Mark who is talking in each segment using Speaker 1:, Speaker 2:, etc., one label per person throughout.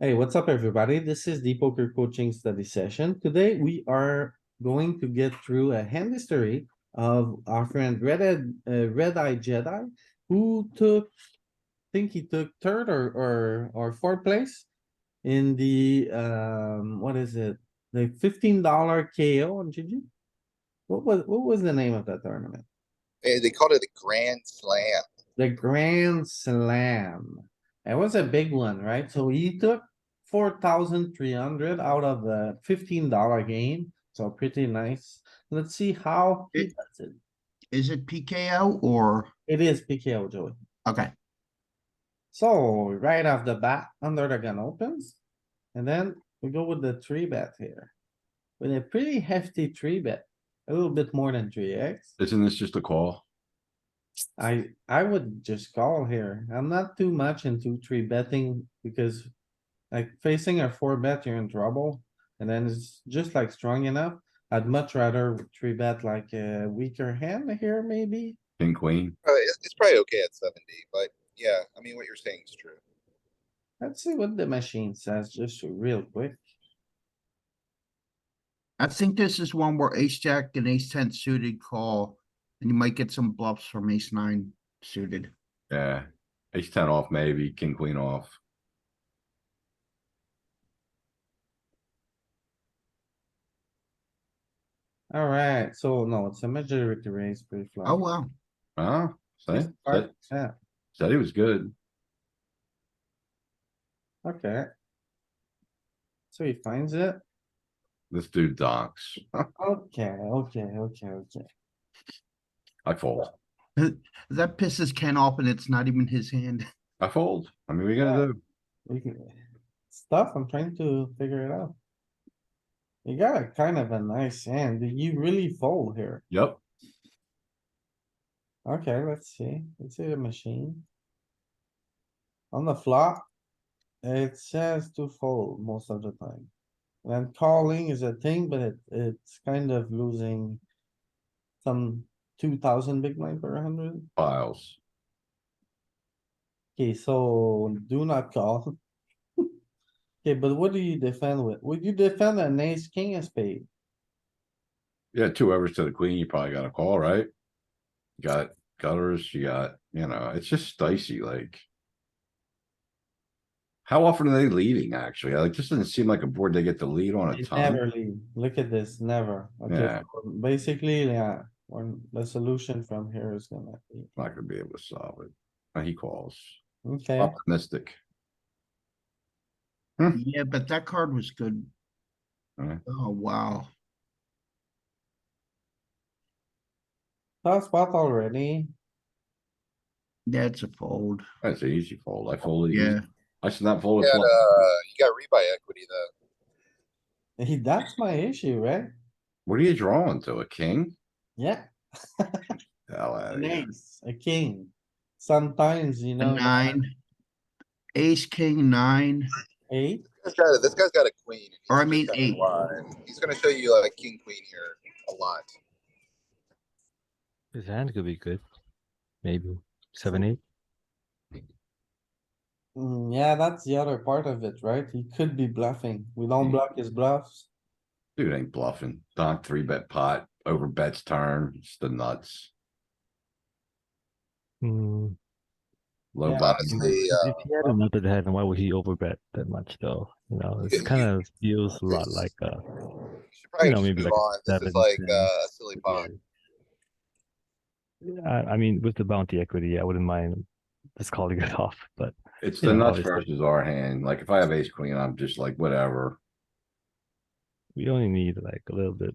Speaker 1: Hey, what's up, everybody? This is the poker coaching study session. Today, we are going to get through a hand history of our friend Red Ed, uh, Red Eye Jedi, who took, I think he took third or, or, or fourth place in the, um, what is it? The fifteen dollar KO on GG? What was, what was the name of that tournament?
Speaker 2: Eh, They called it a grand slam.
Speaker 1: The Grand Slam. It was a big one, right? So he took four thousand three hundred out of the fifteen dollar game, so pretty nice. Let's see how he
Speaker 3: It-
Speaker 1: does it.
Speaker 3: Is it PKO or,
Speaker 1: It is PKO Joey.
Speaker 3: okay,
Speaker 1: So right off the bat, under the gun opens. And then we go with the three bet here. With a pretty hefty three bet, a little bit more than three X.
Speaker 4: Isn't this just a call?
Speaker 1: I, I would just call here. I'm not too much into three betting because like facing a four bet, you're in trouble. And then it's just like strong enough. I'd much rather three bet like a weaker hand here maybe.
Speaker 4: King, queen?
Speaker 2: Uh, it's, it's probably okay at seventy, but yeah, I mean, what you're saying is true.
Speaker 1: Let's see what the machine says just real quick.
Speaker 3: I think this is one where ace jack and ace ten suited call. And you might get some bluffs from ace nine suited.
Speaker 4: Yeah, ace ten off maybe, king, queen off.
Speaker 1: Alright, so no, it's a majority raise pre flop.
Speaker 3: Oh, wow.
Speaker 4: Huh?
Speaker 1: Just
Speaker 4: Said,
Speaker 1: part- Yeah,
Speaker 4: said he was good.
Speaker 1: okay. So he finds it.
Speaker 4: This dude docks.
Speaker 1: Okay, okay, okay, okay.
Speaker 4: I fold.
Speaker 3: That pisses Ken off and it's not even his hand.
Speaker 4: I fold. I mean, we gonna do?
Speaker 1: We can- It's tough. I'm trying to figure it out. You got a kind of a nice hand. Did you really fold here?
Speaker 4: Yep.
Speaker 1: Okay, let's see. Let's see the machine. On the flop, it says to fold most of the time. And calling is a thing, but it, it's kind of losing some two thousand big blind per hundred.
Speaker 4: Files.
Speaker 1: Okay, so do not call. Okay, but what do you defend with? Would you defend an ace, king, a spade?
Speaker 4: Yeah, two overs to the queen, you probably got a call, right? Got gutters, you got, you know, it's just dicey, like. How often are they leading, actually? Like, this doesn't seem like a board they get to lead on a
Speaker 1: It
Speaker 4: ton.
Speaker 1: Never lead. Look at this, never. Okay,
Speaker 4: Yeah.
Speaker 1: so basically, yeah, when the solution from here is gonna be,
Speaker 4: Not gonna be able to solve it. Uh, He calls.
Speaker 1: okay,
Speaker 4: Optimistic.
Speaker 3: Yeah, but that card was good.
Speaker 4: Alright.
Speaker 3: Oh, wow.
Speaker 1: tough spot already.
Speaker 3: That's a fold.
Speaker 4: That's an easy fold. I fold. it easy.
Speaker 3: Yeah,
Speaker 4: I should not fold
Speaker 2: You
Speaker 4: a
Speaker 2: got,
Speaker 4: flop.
Speaker 2: uh, you got rebuy equity though.
Speaker 1: He, that's my issue, right?
Speaker 4: What are you drawing to? A king?
Speaker 1: Yeah,
Speaker 4: Hell outta
Speaker 1: an
Speaker 4: here.
Speaker 1: ace, a king. Sometimes, you
Speaker 3: a
Speaker 1: know,
Speaker 3: nine. Ace, king, nine.
Speaker 1: eight,
Speaker 2: This guy, this guy's got a queen. and he's
Speaker 3: Or I
Speaker 2: just
Speaker 3: mean
Speaker 2: got a
Speaker 3: eight.
Speaker 2: line. He's gonna show you like king, queen here a lot.
Speaker 5: His hand could be good. Maybe seven, eight.
Speaker 1: Mm, yeah, that's the other part of it, right? He could be bluffing. We don't
Speaker 4: Hmm.
Speaker 1: block his bluffs.
Speaker 4: Dude ain't bluffing. Don three bet pot, over bets turn, it's the nuts.
Speaker 5: Mm,
Speaker 4: Low
Speaker 1: Yeah.
Speaker 4: bottom.
Speaker 2: Honestly, uh,
Speaker 5: if he had another hand, why would he overbet that much though? You know,
Speaker 2: Yeah,
Speaker 5: it kind of feels a lot
Speaker 2: it's-
Speaker 5: like uh
Speaker 2: you should probably
Speaker 5: know,
Speaker 2: just
Speaker 5: maybe
Speaker 2: move
Speaker 5: like
Speaker 2: on. This is
Speaker 5: seven,
Speaker 2: like,
Speaker 5: ten.
Speaker 2: uh, a silly pot.
Speaker 5: I, I mean, with the bounty equity, I wouldn't mind just calling it off. But
Speaker 4: It's
Speaker 5: you
Speaker 4: the
Speaker 5: know,
Speaker 4: nuts
Speaker 5: it's the-
Speaker 4: versus our hand. Like if I have ace queen, I'm just like, whatever.
Speaker 5: we only need like a little bit.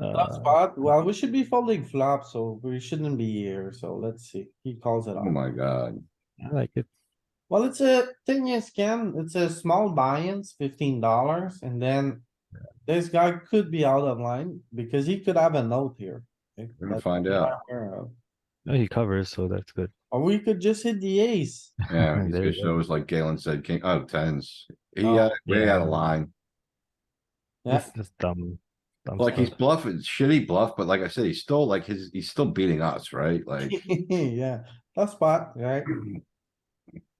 Speaker 1: Tough
Speaker 5: Uh,
Speaker 1: spot. Well, we should be folding flop, so we shouldn't be here. So let's see. He calls it
Speaker 4: Oh
Speaker 1: off.
Speaker 4: my god.
Speaker 5: I like it.
Speaker 1: Well, it's a thing is, Ken, it's a small buy-ins, fifteen dollars, and then this guy could be out of line because he could have a note here. okay,
Speaker 4: We're gonna
Speaker 1: that
Speaker 4: find
Speaker 1: we're not
Speaker 4: out.
Speaker 1: aware of.
Speaker 5: No, he covers, so that's good.
Speaker 1: Or we could just hit the ace.
Speaker 4: Yeah, he's
Speaker 5: There
Speaker 4: gonna
Speaker 5: you go.
Speaker 4: show us like Galen said, king, oh, tens. He
Speaker 1: Oh,
Speaker 4: got, way out
Speaker 5: yeah.
Speaker 4: of line.
Speaker 1: Yeah,
Speaker 5: This is dumb. dumb
Speaker 4: Like he's
Speaker 5: stuff.
Speaker 4: bluffing, shitty bluff, but like I said, he's still like his, he's still beating us, right? Like.
Speaker 1: yeah, tough spot, right?